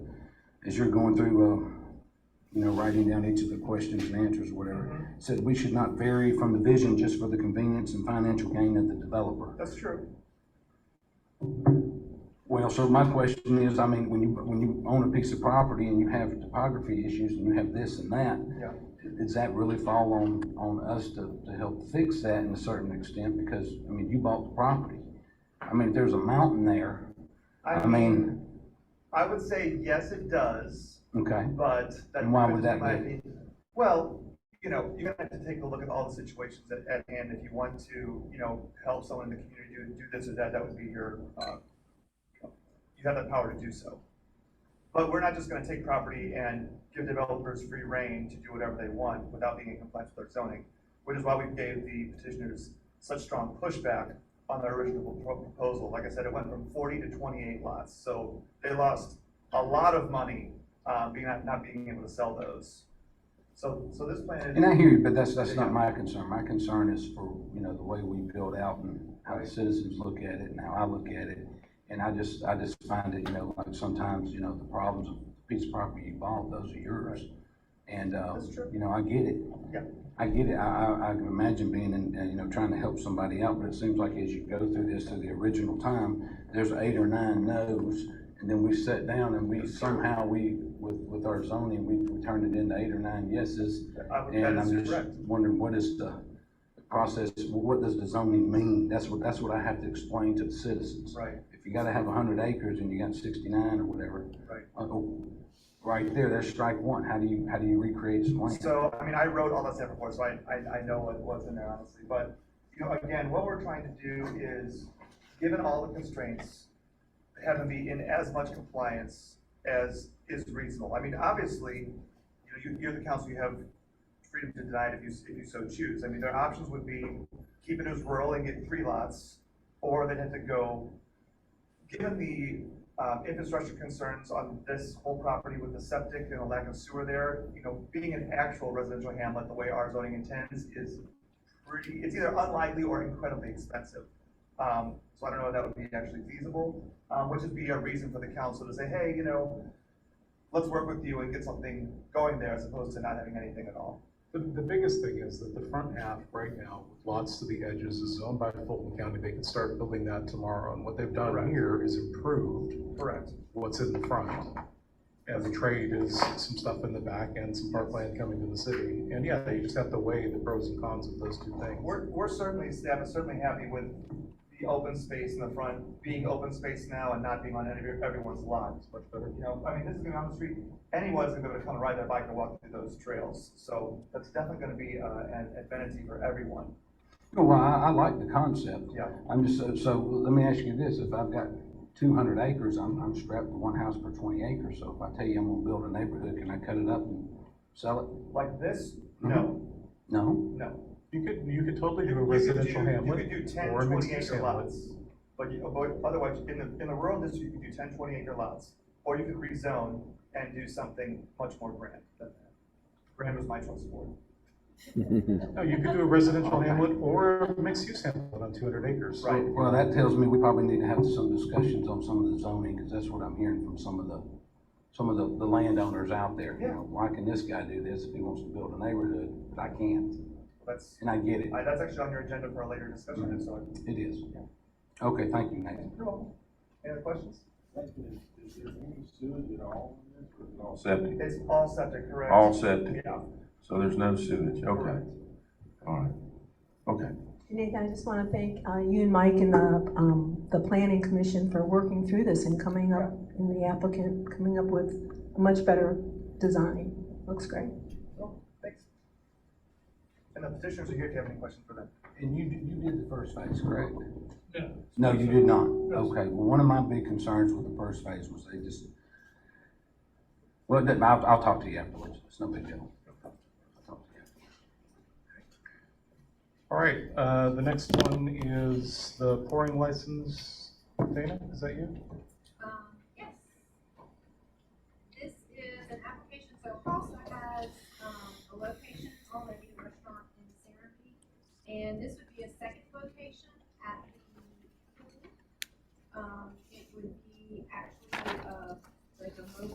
as you're going through, uh, you know, writing down each of the questions and answers, whatever, said we should not vary from the vision just for the convenience and financial gain of the developer. That's true. Well, so my question is, I mean, when you, when you own a piece of property and you have topography issues and you have this and that, Yeah. does that really fall on, on us to, to help fix that in a certain extent? Because, I mean, you bought the property. I mean, if there's a mountain there, I mean, I would say, yes, it does, okay, but. that- And why would that that's my be? opinion. Well, you know, you're gonna have to take a look at all the situations at, at hand. If you want to, you know, help someone in the community do, do this or that, that would be your, uh, you have that power to do so. But we're not just gonna take property and give developers free rein to do whatever they want without being in compliance with our zoning, which is why we gave the petitioners such strong pushback on their original pro- proposal. Like I said, it went from forty to twenty-eight lots, so they lost a lot of money, uh, being, not, not being able to sell those. So, so this plan and I is, hear you, but that's, that's not my concern. My concern is for, you know, the way we build out and how the citizens look at it and how I look at it. And I just, I just find it, you know, like sometimes, you know, the problems of the piece of property you bought, those are yours. And, uh, That's true. you know, I get it. yeah, I get it. I, I, I can imagine being in, uh, you know, trying to help somebody out, but it seems like as you go through this to the original time, there's eight or nine no's, and then we sat down and we somehow, we, with, with our zoning, we, we turned it into eight or nine yeses. I would- And that I'm is just correct. wondering, what is the process, what does the zoning mean? That's what, that's what I have to explain to the citizens. Right. If you gotta have a hundred acres and you got sixty-nine or whatever. Right. uh, oh, Right there, there's strike one. How do you, how do you recreate some land? So, I mean, I wrote all that stuff before, so I, I, I know what was in there honestly, but, you know, again, what we're trying to do is, given all the constraints, have them be in as much compliance as is reasonable. I mean, obviously, you know, you, you're the council, you have freedom to deny it if you, if you so choose. I mean, their options would be keep it as rural and get three lots, or they'd have to go Given the um, infrastructure concerns on this whole property with the septic and the lack of sewer there, you know, being an actual residential hamlet, the way our zoning intends, is pretty, it's either unlikely or incredibly expensive. Um, So I don't know if that would be actually feasible, um, which would be a reason for the council to say, hey, you know, let's work with you and get something going there as opposed to not having anything at all. The, the biggest thing is that the front half right now, with lots to the edges, is owned by Fulton County. They can start building that tomorrow. And what they've done Correct. here is improved Correct. what's in the front. And the trade is some stuff in the back and some parkland coming to the city. And yeah, you just have to weigh the pros and cons of those two things. We're, we're certainly, staff is certainly happy with the open space in the front being open space now and not being on any, everyone's lot. It's much better. You know, I mean, this is gonna be on the street, anyone's gonna be able to come and ride their bike and walk through those trails. So that's definitely gonna be, uh, an advantage for everyone. No, Well, I, I like the concept. Yeah. I'm just, so, so let me ask you this, if I've got two hundred acres, I'm, I'm strapped to one house per twenty acres, so if I tell you I'm gonna build a neighborhood, can I cut it up and sell it? Like this, no, No? no. You could, you could totally do a You could residential do- hamlet. You could do ten, or a twenty mixed-use acre hamlet. lots, but you, but otherwise, in the, in the rural district, you could do 10, 20 acre lots. Or you could rezone and do something much more grand than that. Grand was my choice for it. No, you could do a residential hamlet or a mixed-use hamlet on two hundred acres. Right. Well, that tells me we probably need to have some discussions on some of the zoning, because that's what I'm hearing from some of the, some of the, the landowners out there. You Yeah. know, why can this guy do this if he wants to build a neighborhood, but I can't? That's, And I get it, I- that's actually on your agenda for a later discussion, so. I- it is. Okay, thank you, Nathan. You're welcome. Any other questions? Is is there any sewage at all in this, or is it all septic? It's all septic, correct? All septic, Yeah. so there's no sewage, okay, all right, okay. Nathan, I just want to thank uh, you and Mike and the, um, the planning commission for working through this and coming up, and the applicant coming up with a much better design. Looks great. Well, Thanks. And the petitioners are here if you have any questions for them. And you, you did the first phase, correct? No. No, you did not? No, Okay, well, one of my big concerns with the first phase was they just, well, it doesn't- I'll, I'll talk to you afterwards, it's no big deal. I'll talk to you. All right, uh, the next one is the pouring license. Dana, is that you?